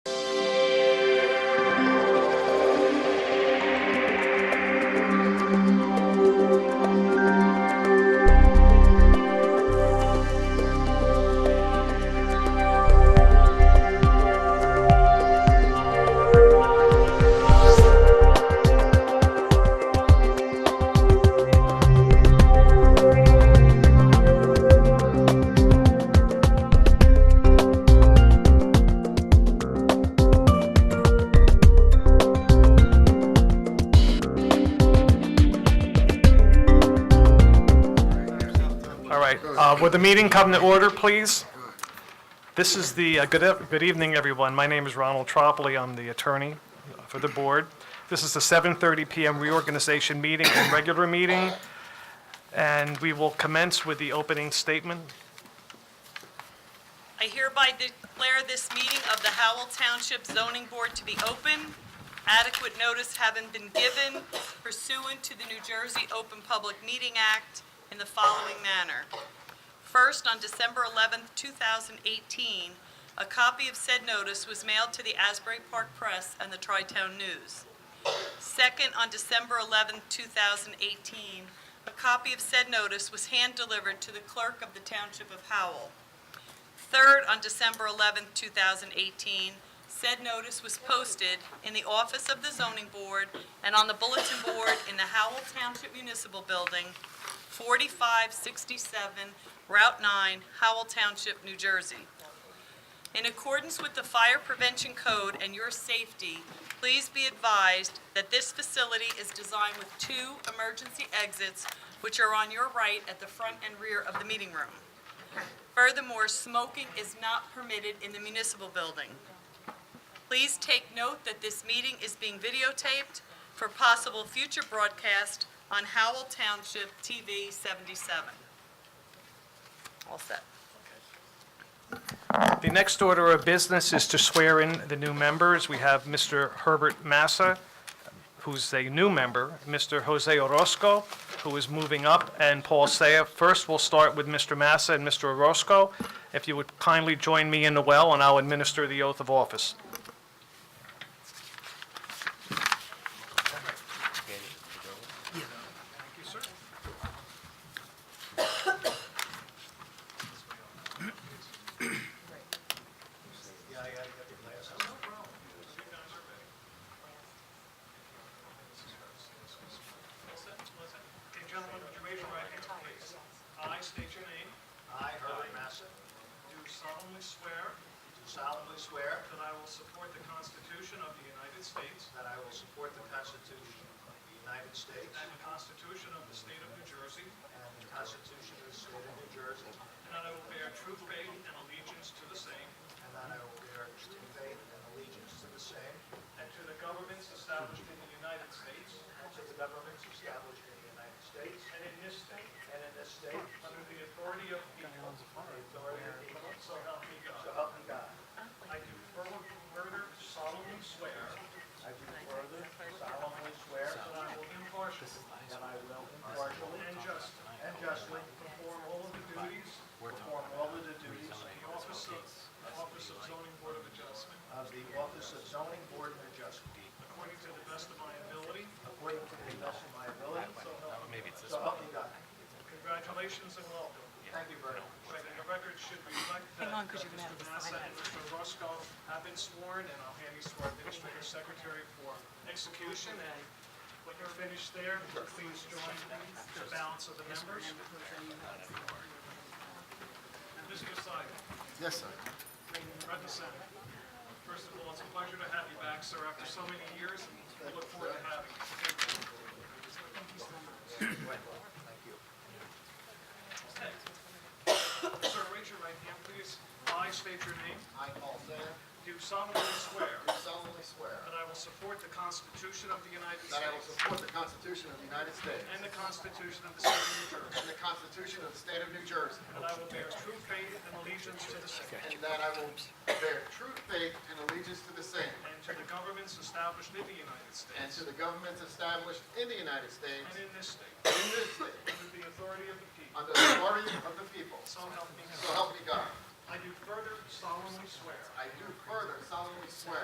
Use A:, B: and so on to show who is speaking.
A: right, uh, would the meeting come to order, please? This is the, uh, good eve- good evening, everyone. My name is Ronald Tropoli, I'm the attorney for the board. This is the 7:30 PM reorganization meeting and regular meeting, and we will commence with the opening statement.
B: I hereby declare this meeting of the Howell Township Zoning Board to be open. Adequate notice having been given pursuant to the New Jersey Open Public Meeting Act in the following manner. First, on December 11th, 2018, a copy of said notice was mailed to the Asbury Park Press and the Tri-Town News. Second, on December 11th, 2018, a copy of said notice was hand-delivered to the clerk of the Township of Howell. Third, on December 11, 2018, said notice was posted in the office of the zoning board and on the bulletin board in the Howell Township Municipal Building, 4567 Route 9, Howell Township, New Jersey. In accordance with the Fire Prevention Code and your safety, please be advised that this facility is designed with two emergency exits, which are on your right at the front and rear of the meeting room. Furthermore, smoking is not permitted in the municipal building. Please take note that this meeting is being videotaped for possible future broadcast on Howell Township TV 77. All set.
A: The next order of business is to swear in the new members. We have Mr. Herbert Massa, who's a new member, Mr. Jose Orozco, who is moving up, and Paul Seiya. First, we'll start with Mr. Massa and Mr. Orozco. If you would kindly join me in the well, and I'll administer the oath of office.
C: Okay, gentlemen, would you raise your right hand, please? I state your name.
D: I, Herbert Massa, do
C: Do solemnly swear
D: solemnly swear
C: that I will support the Constitution of the United States
D: that I will support the Constitution of the United States
C: and the Constitution of the State of New Jersey,
D: and the Constitution of the State of New Jersey,
C: and that I will bear true faith and allegiance to the same
D: and that I will bear true faith and allegiance to the same
C: and to the governments established in the United States
D: and to the governments established in the United States
C: and in this state
D: and in this state
C: under the authority of the people,
D: under the authority of the people,
C: so help me
D: so
C: God.
D: help me God.
C: I do further further solemnly swear
D: I do further solemnly swear
C: that I will impartially
D: that I will impartially
C: and justly
D: and justly
C: perform all of the duties
D: perform all of the duties
C: of the office of, office of zoning board of adjustment
D: of the Office of Zoning Board of Adjustment
C: According to the best of my ability,
D: according to the best of my ability,
C: so help me.
D: so help me God.
C: Congratulations and welcome.
D: Thank you very much.
C: Right, and The record should reflect
B: Hang
C: that
B: on,
C: that
B: 'cause you're gonna have
C: Mr.
B: to
C: Massa
B: sign
C: and Mr. Roscoe have been sworn, and I'll hand these to our administrative secretary for execution. And when you're finished there, please join the balance of the members. Mr. Seidel.
E: Yes, sir.
C: Brenda Center. First of all, it's a pleasure to have you back, sir, after so many years, and we look forward to having you. Thank you. Sir, raise your right hand, please. I state your name.
E: I, Paul Thayer,
C: Do solemnly swear
E: do solemnly swear
C: that I will support the Constitution of the United
E: that I will
C: States
E: support the Constitution of the United States
C: and the Constitution of the State of New Jersey,
E: and the Constitution of the State of New Jersey,
C: and I will bear true faith and allegiance to the same
E: and that I will bear true faith and allegiance to the same
C: and to the governments established in the United
E: and
C: States
E: to the governments established in the United States
C: and in this state,
E: and in this state
C: under the authority of the people,
E: under the authority of the people.
C: so help me God.
E: So help me God.
C: I do further solemnly swear
E: I do further solemnly swear